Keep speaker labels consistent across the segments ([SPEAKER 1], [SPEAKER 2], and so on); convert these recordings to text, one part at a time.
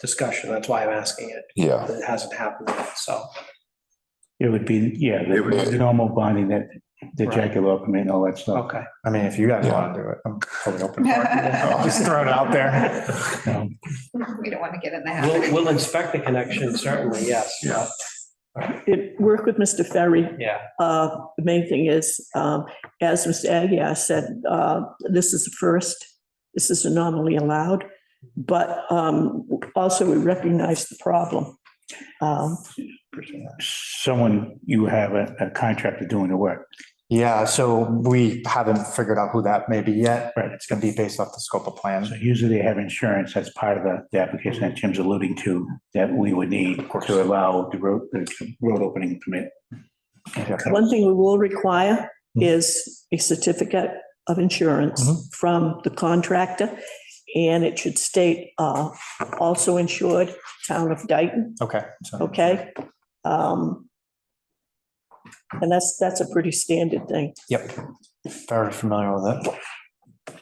[SPEAKER 1] discussion. That's why I'm asking it.
[SPEAKER 2] Yeah,
[SPEAKER 1] It hasn't happened yet, so.
[SPEAKER 3] It would be, yeah,
[SPEAKER 2] It would-
[SPEAKER 3] the the normal bonding that, the
[SPEAKER 1] Right.
[SPEAKER 3] Jackalope, I mean, all that stuff.
[SPEAKER 1] Okay.
[SPEAKER 4] I mean, if you guys
[SPEAKER 2] Yeah.
[SPEAKER 4] want to do it, I'm totally open for it. I'll just throw it out there.
[SPEAKER 3] Um,
[SPEAKER 5] We don't want to get in the
[SPEAKER 1] We'll,
[SPEAKER 5] habit.
[SPEAKER 1] we'll inspect the connection, certainly, yes.
[SPEAKER 2] Yeah.
[SPEAKER 6] it, work with Mr. Ferry.
[SPEAKER 1] Yeah,
[SPEAKER 6] Uh, the main thing is, um, as Mr. Agia said, uh, this is the first, this is anomaly allowed. But, um, also we recognize the problem. Um,
[SPEAKER 3] Someone, you have a a contractor doing the work.
[SPEAKER 4] Yeah, so we haven't figured out who that may be yet.
[SPEAKER 3] Right.
[SPEAKER 4] It's gonna be based off the scope of
[SPEAKER 3] So
[SPEAKER 4] plan.
[SPEAKER 3] usually they have insurance, that's part of the, the application that Jim's alluding to, that we would need to allow the road, the road opening permit.
[SPEAKER 6] one thing we will require is a certificate of insurance from the contractor. And it should state, uh, also insured town of Dayton.
[SPEAKER 4] Okay. so-
[SPEAKER 6] Okay? Um, And that's, that's a pretty standard thing.
[SPEAKER 4] Yep. Very familiar with it.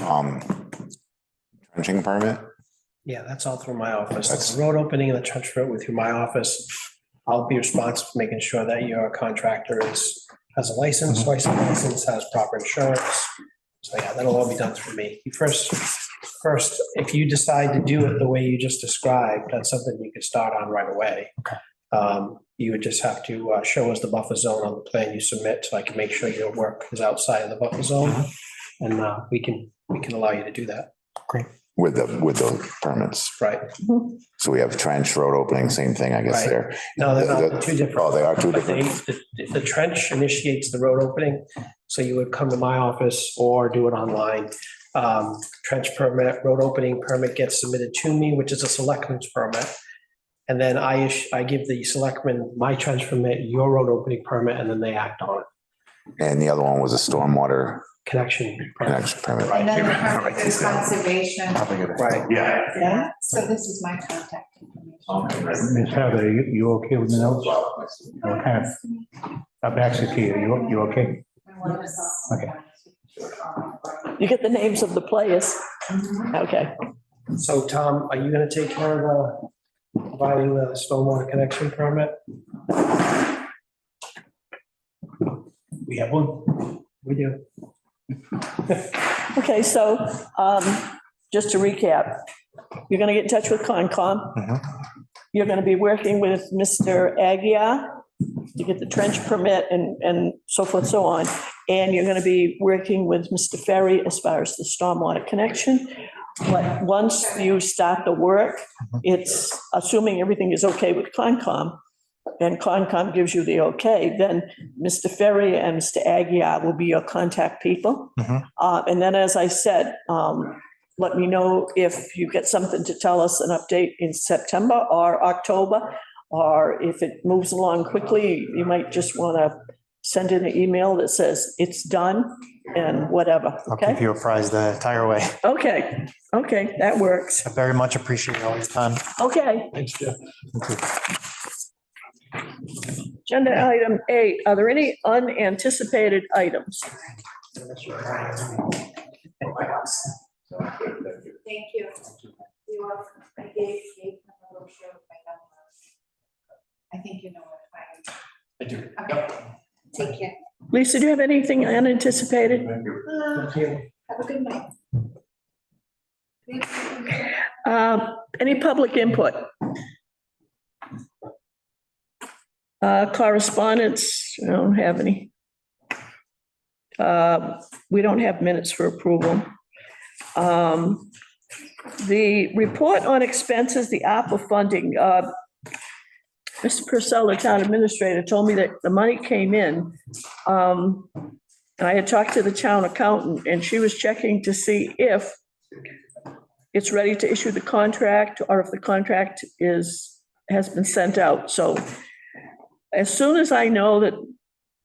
[SPEAKER 2] um, trenching permit,
[SPEAKER 1] yeah, that's all through my office. The road opening and the trench road with through my office. I'll be responsible for making sure that your contractor is, has a license, license, license, has proper insurance. So yeah, that'll all be done through me. You First, first, if you decide to do it the way you just described, that's something you could start on right away.
[SPEAKER 4] Okay.
[SPEAKER 1] Um, you would just have to uh, show us the buffer zone on the plan you submit, so I can make sure your work is outside of the buffer zone. And uh, we can, we can allow you to do that,
[SPEAKER 2] with the, with those permits.
[SPEAKER 1] right?
[SPEAKER 2] So we have trench road opening, same thing, I guess
[SPEAKER 1] Right.
[SPEAKER 2] there.
[SPEAKER 1] No, they're not, they're two
[SPEAKER 2] Oh,
[SPEAKER 1] different.
[SPEAKER 2] they are two
[SPEAKER 1] But they-
[SPEAKER 2] different.
[SPEAKER 1] The the trench initiates the road opening, so you would come to my office or do it online. Um, Trench permit, road opening permit gets submitted to me, which is a selectman's permit. And then I, ish- I give the selectman my trench permit, your road opening permit, and then they act on it.
[SPEAKER 2] And the other one was a stormwater
[SPEAKER 1] Connection. permit.
[SPEAKER 2] connection permit.
[SPEAKER 5] And then
[SPEAKER 2] Right.
[SPEAKER 5] part of the conservation.
[SPEAKER 4] Probably good.
[SPEAKER 1] Right,
[SPEAKER 7] Yeah.
[SPEAKER 5] Yeah, so this is my contact information.
[SPEAKER 3] Ms. Heather, you, you okay with the notes? Okay. I'm actually, Kia, you, you okay?
[SPEAKER 6] You get the names of the players. Okay.
[SPEAKER 1] so Tom, are you gonna take care of the, providing the stormwater connection permit?
[SPEAKER 3] We have one.
[SPEAKER 1] We do.
[SPEAKER 6] Okay, so um, just to recap, you're going to get in touch with Concom.
[SPEAKER 4] Mhm.
[SPEAKER 6] You're going to be working with Mr. Agia to get the trench permit and, and so forth, so on. And you're going to be working with Mr. Ferry as far as the stormwater connection. But once you start the work, it's assuming everything is okay with Concom and Concom gives you the okay, then Mr. Ferry and Mr. Agia will be your contact people.
[SPEAKER 4] Mhm.
[SPEAKER 6] Uh, And then, as I said, um, let me know if you get something to tell us, an update in September or October, or if it moves along quickly, you might just want to send in an email that says it's done and whatever,
[SPEAKER 4] I'll keep
[SPEAKER 6] okay?
[SPEAKER 4] you apprised the entire way.
[SPEAKER 6] Okay, okay, that works.
[SPEAKER 4] I very much appreciate all your time.
[SPEAKER 6] Okay. Agenda item eight, are there any unanticipated items?
[SPEAKER 5] Thank you. You are, I gave, gave them a brochure with my number. I think you know what I. I do. Okay, take care.
[SPEAKER 6] Lisa, do you have anything unanticipated?
[SPEAKER 5] Have a good night.
[SPEAKER 6] Um, Any public input? Uh, Correspondence, I don't have any. Uh, We don't have minutes for approval. Um, The report on expenses, the ARPA funding, uh, Mr. Purcell, the town administrator, told me that the money came in. Um, And I had talked to the town accountant, and she was checking to see if it's ready to issue the contract or if the contract is, has been sent out. So as soon as I know that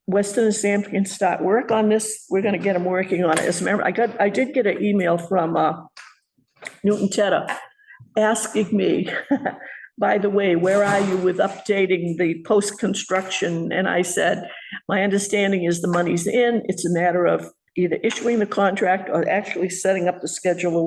[SPEAKER 6] Weston and Sampson can start work on this, we're going to get them working on it. As a matter, I got, I did get an email from uh, Newton Tedder asking me, by the way, where are you with updating the post-construction? And I said, my understanding is the money's in. It's a matter of either issuing the contract or actually setting up the schedule of